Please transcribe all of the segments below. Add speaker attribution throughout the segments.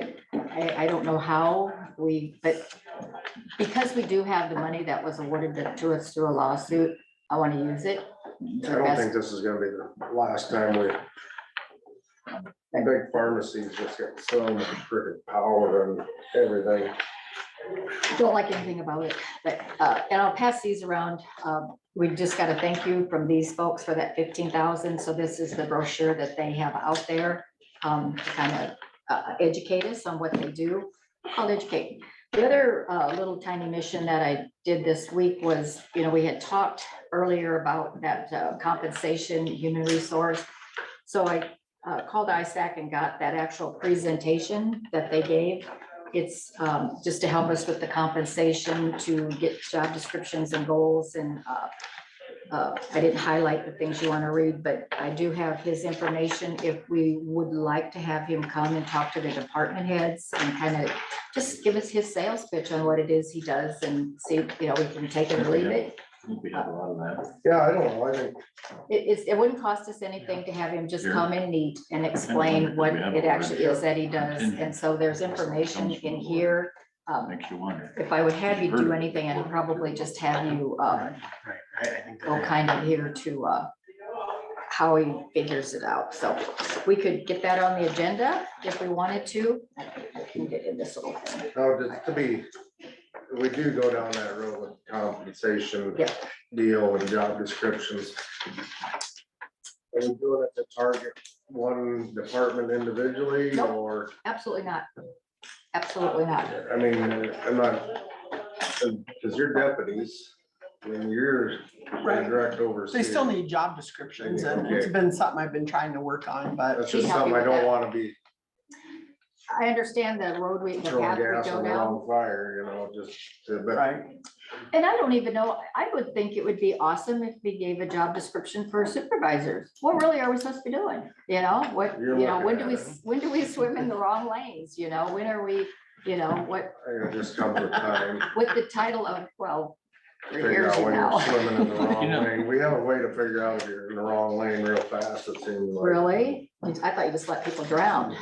Speaker 1: I, I don't know how we, but because we do have the money that was awarded to- to us through a lawsuit, I want to use it.
Speaker 2: I don't think this is gonna be the last time we. Big pharmacies just get so much freaking power and everything.
Speaker 1: Don't like anything about it, but, uh, and I'll pass these around. Um, we just got a thank you from these folks for that fifteen thousand. So this is the brochure that they have out there, um, to kind of, uh, educate us on what they do. I'll educate. The other, uh, little tiny mission that I did this week was, you know, we had talked earlier about that uh, compensation, human resource. So I, uh, called ISAC and got that actual presentation that they gave. It's um, just to help us with the compensation to get job descriptions and goals and uh, uh, I didn't highlight the things you want to read, but I do have his information if we would like to have him come and talk to the department heads and kind of just give us his sales pitch on what it is he does and see, you know, we can take it or leave it.
Speaker 3: We have a lot of that.
Speaker 2: Yeah, I don't know, I think,
Speaker 1: It is, it wouldn't cost us anything to have him just
Speaker 3: Sure.
Speaker 1: come and eat and explain what it actually is that he does. And so there's information in here. um,
Speaker 3: Makes you wonder.
Speaker 1: if I would have you do anything, I'd probably just have you, um,
Speaker 4: Right, I, I think.
Speaker 1: go kind of here to, uh, how he figures it out. So we could get that on the agenda if we wanted to. I can get in this little thing.
Speaker 2: now, just to be, we do go down that road with compensation.
Speaker 1: Yeah.
Speaker 2: Deal and job descriptions. Are we doing it to target one department individually
Speaker 1: Nope.
Speaker 2: or?
Speaker 1: Absolutely not. Absolutely not.
Speaker 2: I mean, I'm not, because your deputies, when you're
Speaker 5: Right.
Speaker 2: direct overseer.
Speaker 5: They still need job descriptions and it's been something I've been trying to work on, but
Speaker 2: That's
Speaker 1: She'd
Speaker 2: just
Speaker 1: help you
Speaker 2: something I
Speaker 1: with
Speaker 2: don't
Speaker 1: that.
Speaker 2: wanna be
Speaker 1: I understand the road we, the
Speaker 2: throwing
Speaker 1: path we
Speaker 2: gas
Speaker 1: go
Speaker 2: on the
Speaker 1: down.
Speaker 2: wrong fire, you know, just, to- but
Speaker 5: right,
Speaker 1: And I don't even know, I would think it would be awesome if we gave a job description for supervisors. What really are we supposed to be doing? You know, what,
Speaker 2: You're
Speaker 1: you know, when do
Speaker 2: looking
Speaker 1: we,
Speaker 2: at it.
Speaker 1: when do we swim in the wrong lanes? You know, when are we, you know, what,
Speaker 2: I think it just comes with time.
Speaker 1: with the title of, well, three
Speaker 2: Figure
Speaker 1: years
Speaker 2: out when you're
Speaker 1: now.
Speaker 2: swimming in the
Speaker 3: You
Speaker 2: wrong
Speaker 3: know.
Speaker 2: lane. We have a way to figure out if you're in the wrong lane real fast, it seems like.
Speaker 1: Really? I thought you just let people drown.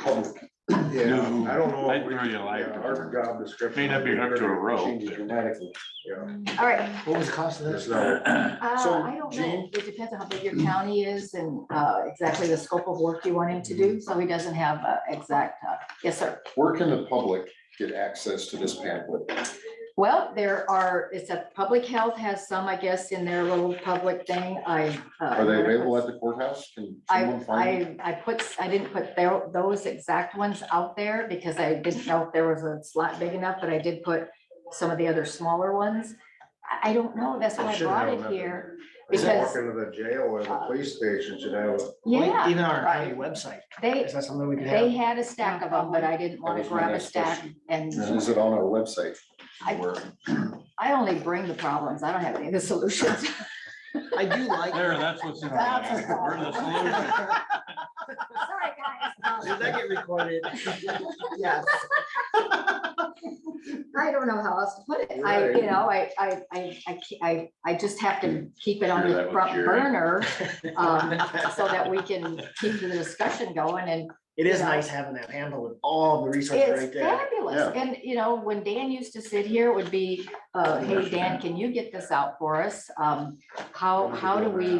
Speaker 2: Yeah,
Speaker 3: No,
Speaker 2: I don't know.
Speaker 3: I'd
Speaker 2: if we-
Speaker 3: really like
Speaker 2: yeah,
Speaker 3: to.
Speaker 2: Our job description.
Speaker 3: May not be hooked to a rope.
Speaker 6: Changes dramatically.
Speaker 2: Yeah,
Speaker 1: All right,
Speaker 6: What was the cost of
Speaker 2: it's
Speaker 6: this?
Speaker 2: not,
Speaker 1: uh,
Speaker 6: So,
Speaker 1: I don't know.
Speaker 6: Jean?
Speaker 1: It depends on how big your county is and, uh, exactly the scope of work you want him to do. So he doesn't have, uh, exact, uh, yes, sir.
Speaker 6: Where can the public get access to this pamphlet?
Speaker 1: Well, there are, it's a, public health has some, I guess, in their little public thing, I. uh,
Speaker 6: Are they available at the courthouse? Can
Speaker 1: I,
Speaker 6: someone find?
Speaker 1: I, I put, I didn't put tho- those exact ones out there because I didn't know if there was a slot big enough, but I did put some of the other smaller ones. I, I don't know, that's why I
Speaker 2: Should
Speaker 1: brought
Speaker 2: have
Speaker 1: it
Speaker 2: nothing.
Speaker 1: here,
Speaker 2: If you
Speaker 1: Because-
Speaker 2: walk into the jail or the police station should have, a-
Speaker 1: yeah.
Speaker 4: Even on our
Speaker 1: right.
Speaker 4: county website,
Speaker 1: They,
Speaker 4: is that something we could
Speaker 1: they
Speaker 4: have?
Speaker 1: had a stack of them, but I didn't want
Speaker 6: That
Speaker 1: to
Speaker 6: was my
Speaker 1: grab a
Speaker 6: next
Speaker 1: stack
Speaker 6: question.
Speaker 1: and
Speaker 6: Is it on our website?
Speaker 1: I-
Speaker 6: Where-
Speaker 1: I only bring the problems, I don't have any of the solutions.
Speaker 5: I do like.
Speaker 3: There, that's what's in there.
Speaker 1: That's a-
Speaker 3: We're the solution.
Speaker 1: Sorry, guys.
Speaker 4: Did that get recorded?
Speaker 5: Yes,
Speaker 1: I don't know how else to put it. I, you
Speaker 2: Right.
Speaker 1: know, I, I, I, I, ca- I, I just have to keep it on
Speaker 3: Hear
Speaker 1: the
Speaker 3: that with
Speaker 1: front
Speaker 3: Jerry.
Speaker 1: burner. um, So that we can keep the discussion going and
Speaker 4: It is
Speaker 1: Yeah.
Speaker 4: nice having that handle with all the resources right
Speaker 1: it's
Speaker 4: there.
Speaker 1: fabulous. And, you know, when Dan used to sit here, it would be, uh, hey, Dan, can you get this out for us? Um, how, how do we,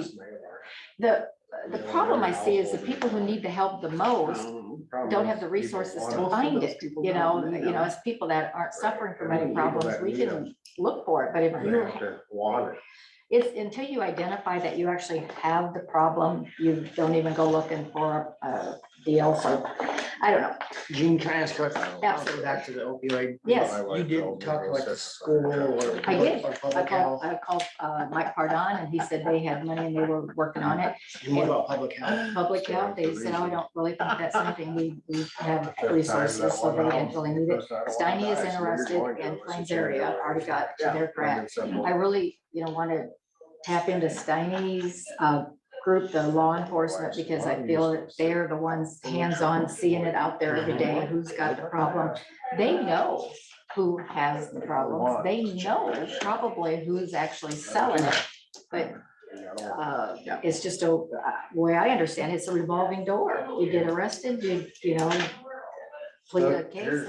Speaker 1: the, the problem I see is the people who need the help the most don't have the resources to
Speaker 5: Well,
Speaker 1: find
Speaker 5: those
Speaker 1: it,
Speaker 5: people
Speaker 1: you know,
Speaker 5: don't,
Speaker 1: you
Speaker 5: you
Speaker 1: know,
Speaker 5: know.
Speaker 1: as people that aren't suffering from any
Speaker 2: People
Speaker 1: problems,
Speaker 2: that
Speaker 1: we
Speaker 2: need
Speaker 1: can look for it, but if
Speaker 2: They
Speaker 1: you,
Speaker 2: have to want it.
Speaker 1: it's until you identify that you actually have the problem, you don't even go looking for a deal, so, I don't know.
Speaker 4: Gene, can I ask a question?
Speaker 1: Oh, Absolutely.
Speaker 4: Back to the opioid.
Speaker 1: Yes.
Speaker 4: You did talk about the school or.
Speaker 1: I did.
Speaker 4: or
Speaker 1: I called,
Speaker 4: public health.
Speaker 1: I called uh, Mike Pardon, and he said they had money and they were working on it.
Speaker 4: And what about public health?
Speaker 1: Public health, they said, oh, I don't really think that's something we, we have resources, so they didn't really need it. Steiny is interested in Plains area, already got to their grant. I really, you know, want to tap into Steiny's uh, group, the law enforcement, because I feel that they're the ones hands-on seeing it out there every day, who's got the problem. They know who has the problems. They know probably who's actually selling it. But uh, it's just a, uh, way I understand, it, it's a revolving door. You get arrested, you, you know, plead a
Speaker 2: Look,
Speaker 1: case.
Speaker 2: here's-